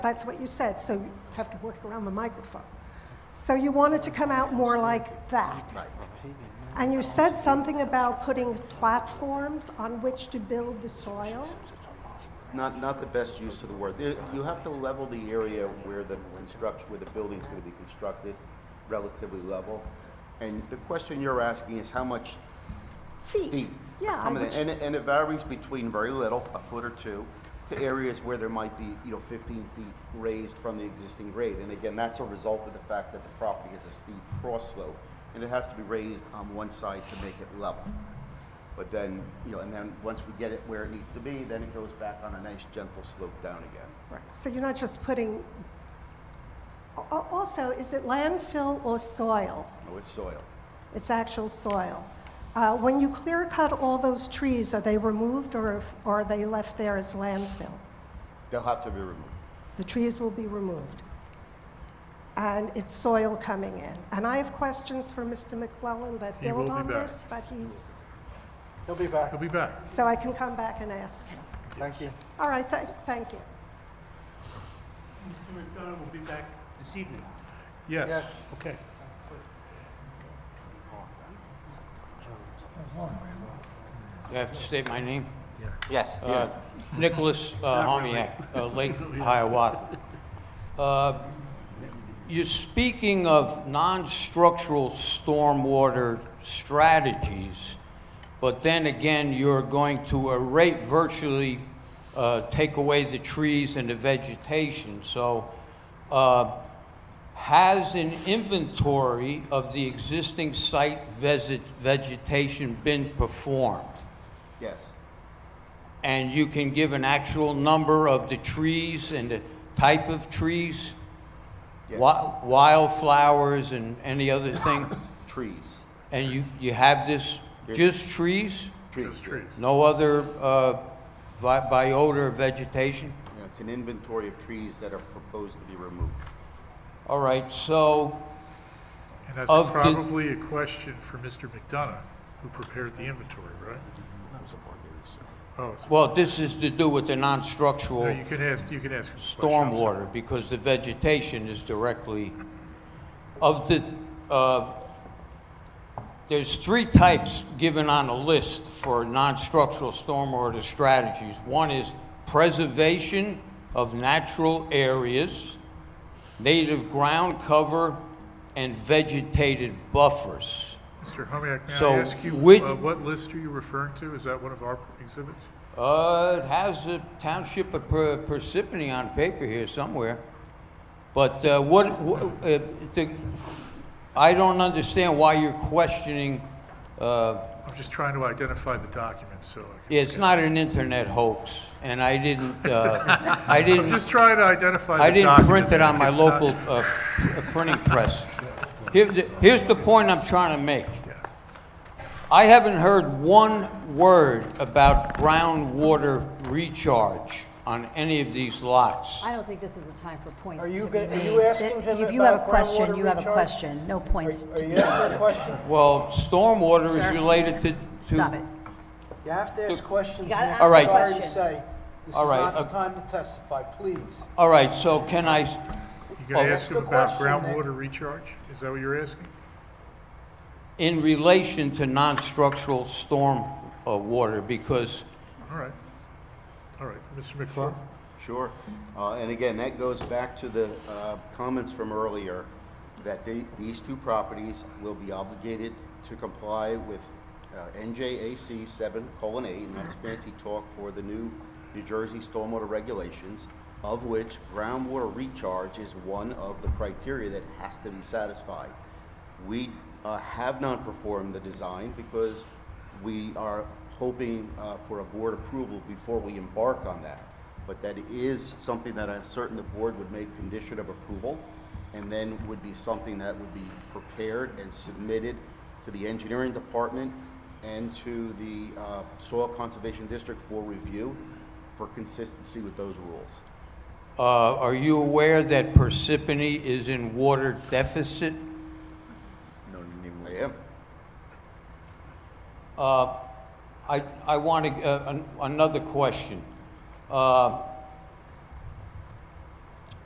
That's what you said, so you have to work around the microphone. So you want it to come out more like that. Right. And you said something about putting platforms on which to build the soil. Not, not the best use of the word. There- You have to level the area where the construction, where the building's gonna be constructed, relatively level. And the question you're asking is how much Feet. feet? Yeah, How I many- would- And, it- and it varies between very little, a foot or two, to areas where there might be, you know, fifteen feet raised from the existing grade. And again, that's a result of the fact that the property has a steep cross slope, and it has to be raised on one side to make it level. But then, you know, and then once we get it where it needs to be, then it goes back on a nice gentle slope down again. Right. So you're not just putting, Al- al- also, is it landfill or soil? No, it's soil. It's actual soil. Uh, When you clear cut all those trees, are they removed or if- or are they left there as landfill? They'll have to be removed. The trees will be removed. And it's soil coming in. And I have questions for Mr. McClellan that He build will be on back. this, but he's, He'll be back. He'll be back. so I can come back and ask him. Thank you. All right, thank, thank you. Mr. McDonough will be back this evening. Yes, Yes. okay. Do I have to state my name? Yes. Uh, Nicholas uh, Homiak, uh, Lake Hiawatha. Uh, You're speaking of non-structural stormwater strategies, but then again, you're going to erate virtually, uh, take away the trees and the vegetation. So uh, has an inventory of the existing site visit- vegetation been performed? Yes. And you can give an actual number of the trees and the type of trees? Yes. wi- Wildflowers and any other thing? Trees. And you, you have this, Yes. just trees? Trees. trees. No other uh, vi- biota or vegetation? Yeah, It's an inventory of trees that are proposed to be removed. All right, so, And that's Of the- probably a question for Mr. McDonough, who prepared the inventory, right? Oh, it's- well, this is to do with the no, non-structural you can ask, you can ask. him the question, I'm sorry. stormwater, because the vegetation is directly, of the, uh, there's three types given on a list for non-structural stormwater strategies. One is preservation of natural areas, native ground cover, and vegetated buffers. Mr. Homiak, may So I ask you, which- uh, what list are you referring to? Is that one of our exhibits? Uh, it has the township of Per- Parsippany on paper here somewhere. But uh, what, wha- uh, the, I don't understand why you're questioning, uh, I'm just trying to identify the document, so I can. it's not an internet hoax, and I didn't, uh, I didn't, Just trying to identify the I document. didn't print it on my It's not- local uh, pr- printing press. Here, the- here's the point I'm trying to make. Yeah. I haven't heard one word about groundwater recharge on any of these lots. I don't think this is a time for points Are to be you made. gonna- are you asking him If you have a about question, groundwater you have a recharge? question, no points to Are be Oh, you asking a question? Well, stormwater is Sir. related to, to... Stop it. You have to ask questions. You gotta Nick. ask a I'm sorry question. to say, this is All right, not the uh, time to testify, please. All right, so can I, s- You gotta ask him Oh. That's the about question, Nick. groundwater recharge? Is that what you're asking? in relation to non-structural storm uh, water, because All right. All right, Mr. McClung? Sure. Uh, And again, that goes back to the uh, comments from earlier, that the- these two properties will be obligated to comply with uh, NJAC 7:8, and that's fancy talk for the new New Jersey stormwater regulations, of which groundwater recharge is one of the criteria that has to be satisfied. We uh, have not performed the design because we are hoping uh, for a board approval before we embark on that. But that is something that I'm certain the board would make condition of approval, and then would be something that would be prepared and submitted to the engineering department and to the uh, Soil Conservation District for review for consistency with those rules. uh, are you aware that Parsippany is in water deficit? I am. Uh, I, I want to, another question. Uh,